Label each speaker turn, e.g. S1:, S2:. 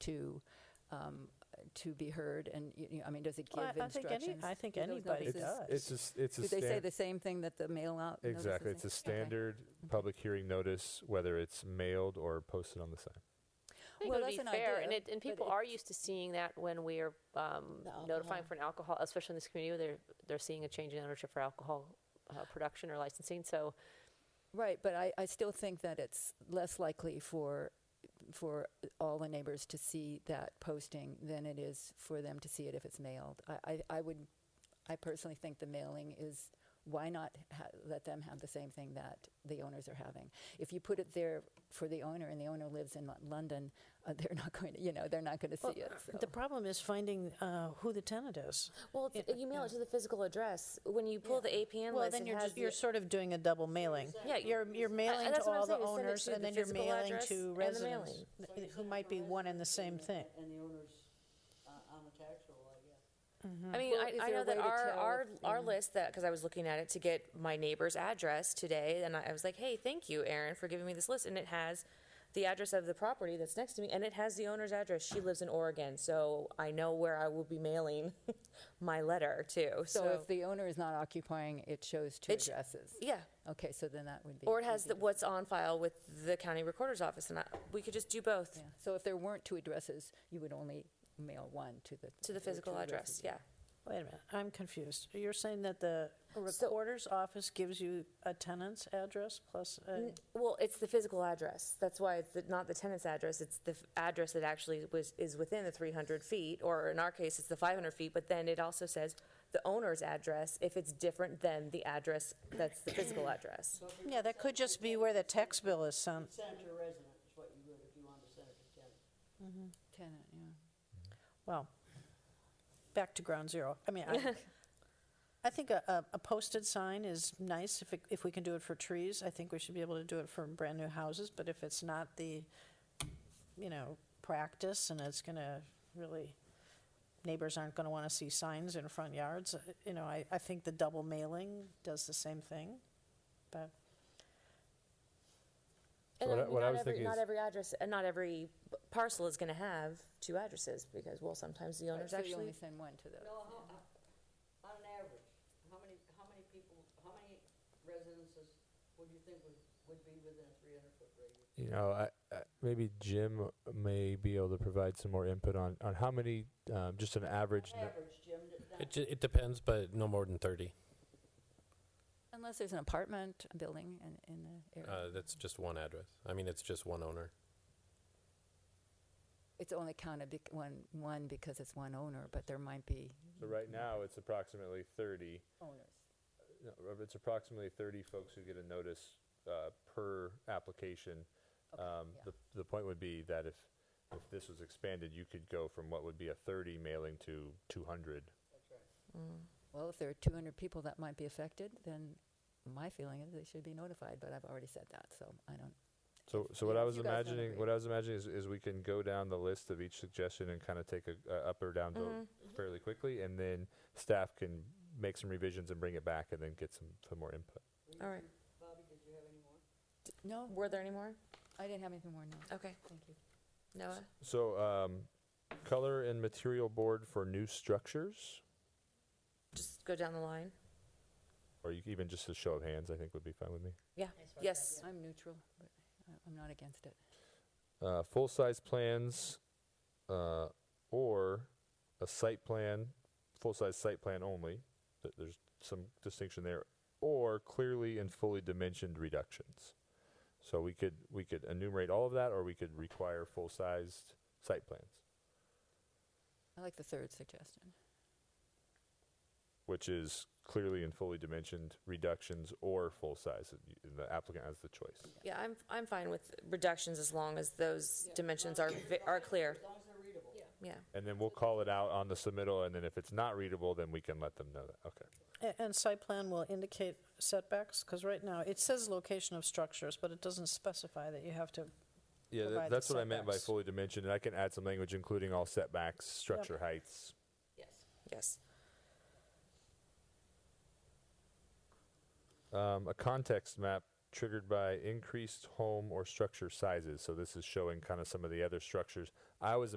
S1: to, um, to be heard? And, you you know, I mean, does it give
S2: Well, I- I think any-
S1: instructions?
S2: I think
S1: Do those
S2: anybody
S1: notices-
S2: does.
S3: It's a, s- it's a
S1: Do they say
S3: stan-
S1: the same thing that the mail out? notices
S3: Exactly. It's
S1: say?
S3: a
S1: Okay. Mm-hmm.
S3: standard public hearing notice, whether it's mailed or posted on the sign.
S4: I think
S1: Well,
S4: it would be
S1: that's an
S4: fair,
S1: idea,
S4: and, it, and
S1: but
S4: people
S1: it-
S4: are used to seeing that when we are um,
S5: The
S4: notifying
S5: alcohol.
S4: for an alcohol, especially in this community, they're they're seeing a change in ownership for alcohol uh, production or licensing. So
S1: Right, but I, I still think that it's less likely for for all the neighbors to see that posting than it is for them to see it if it's mailed. I, I, I would, I personally think the mailing is, why not ha- let them have the same thing that the owners are having? If you put it there for the owner and the owner lives in Lo- London, uh, they're not going to, you know, they're not going to see it. So.
S2: The problem is finding uh, who the tenant is.
S5: Well, it's, you mail it to the physical address. When you pull the APN
S2: Well,
S5: list,
S2: then
S5: it
S2: you're,
S5: has
S2: just- you're
S5: the-
S2: sort of doing a double mailing.
S5: Yeah, you-
S2: You're, you're mailing to
S5: that's what I'm
S2: all the
S5: saying, send it
S2: owners,
S5: to
S2: and
S5: the
S2: then you're
S5: physical
S2: mailing
S5: address
S2: to
S5: and the
S2: residents,
S5: mailing.
S2: th- who might be one and the same thing.
S6: And the owner's uh, on the tax roll, I guess.
S5: I mean,
S1: Well, is
S5: I, I
S1: there a
S5: know that
S1: way to
S5: our
S1: tell
S5: our,
S1: if,
S5: our list that because I was looking at it to get my neighbor's address today, and I, I was like, "Hey, thank you, Aaron, for giving me this list." And it has the address of the property that's next to me, and it has the owner's address. She lives in Oregon, so I know where I will be mailing my letter to.
S1: So,
S5: So,
S1: if the owner is not occupying, it shows two
S5: It sh-
S1: addresses.
S5: yeah,
S1: Okay, so then that would be.
S5: or it has
S1: easy
S5: the,
S1: to-
S5: what's on file with the county recorder's office, and I, we could just do both
S1: Yeah, so if there weren't two addresses, you would only mail one to the.
S5: to the
S1: or
S5: physical
S1: two
S5: address.
S1: addresses,
S5: Yeah.
S2: Wait a minute, I'm confused. You're saying that the recorder's office gives you a tenant's address plus a-
S5: N- Well, it's the physical address. That's why it's the, not the tenant's address. It's the f- address that actually was, is within the 300 feet, or in our case, it's the 500 feet. But then it also says the owner's address if it's different than the address that's the physical address.
S2: Yeah, that could just be where the tax bill is sent.
S6: Send it to a resident is what you would if you wanted to send it to a tenant.
S1: Tenant, yeah.
S2: Well, back to ground zero. I mean, I, I think a, a- a posted sign is nice if, it, if we can do it for trees. I think we should be able to do it for brand new houses, but if it's not the, you know, practice and it's going to really, neighbors aren't going to want to see signs in front yards, uh, you know, I, I think the double mailing does the same thing. But
S5: And
S3: what
S5: I
S3: I-
S5: mean,
S3: what I
S5: not
S3: was
S5: every,
S3: thinking
S5: not
S3: is-
S5: every address, uh, not every b- parcel is going to have two addresses because, well, sometimes the
S1: Right,
S5: owner's
S1: So you
S5: actually.
S1: only send one to the,
S6: No, how, how- on an average, how many, how many people, how many residences would you think would, would be within a three hundred foot radius?
S3: You know, I, I, maybe Jim may be able to provide some more input on, on how many, um, just an average.
S6: On
S3: nu-
S6: Average, Jim, that- that-
S7: It, ju- it depends, but no more than 30.
S1: unless there's an apartment building in, in the
S7: Uh,
S1: area.
S7: that's just one address. I mean, it's just one owner.
S1: It's only counted bec- one, one because it's one owner, but there might be
S3: So right now, it's approximately 30.
S1: owners.
S3: No, Rob, it's approximately 30 folks who get a notice uh, per application. Um,
S1: yeah.
S3: The, the point would be that if, if this was expanded, you could go from what would be a 30 mailing to 200.
S6: that's right.
S1: Well, if there are two hundred people that might be affected, then my feeling is they should be notified, but I've already said that, so I don't.
S3: So, so
S1: Yeah,
S3: what I
S1: if
S3: was
S1: you guys don't
S3: imagining,
S1: agree.
S3: what I was imagining is, is we can go down the list of each suggestion and kind of take a, a up or down
S1: Mm-hmm.
S3: vote fairly quickly, and then staff can make some revisions and bring it back, and then get some, some more input.
S5: All right.
S6: Bobby, did you have any
S1: No,
S6: more?
S5: Were there any more?
S1: I didn't have anything more, no,
S5: Okay,
S1: thank you.
S5: Noah.
S3: So, um, color and material board for new structures,
S5: Just go down the line.
S3: or you, c- even just a show of hands, I think would be fine with me.
S5: Yeah. Yes.
S1: I'm neutral, but I- I'm not against it.
S3: Uh, full size plans, uh, or a site plan, full size site plan only. Th- There's some distinction there, or clearly and fully dimensioned reductions. So we could we could enumerate all of that, or we could require full sized site plans,
S1: I like the third suggestion.
S3: which is clearly and fully dimensioned reductions or full size. The applicant has the choice.
S5: Yeah, I'm, I'm fine with reductions as long as those dimensions are, vi- are clear.
S6: As long as they're readable. Yeah.
S5: Yeah.
S3: And then we'll call it out on the submittal, and then if it's not readable, then we can let them know that. Okay.
S2: A- And site plan will indicate setbacks, because right now, it says location of structures, but it doesn't specify that you have to,
S3: Yeah, that,
S2: Provide the
S3: that's what I meant by
S2: setbacks.
S3: fully dimensioned, and I can add some language including all setbacks, structure heights.
S5: Yes.
S3: Um, a context map triggered by increased home or structure sizes. So this is showing kind of some of the other structures. I was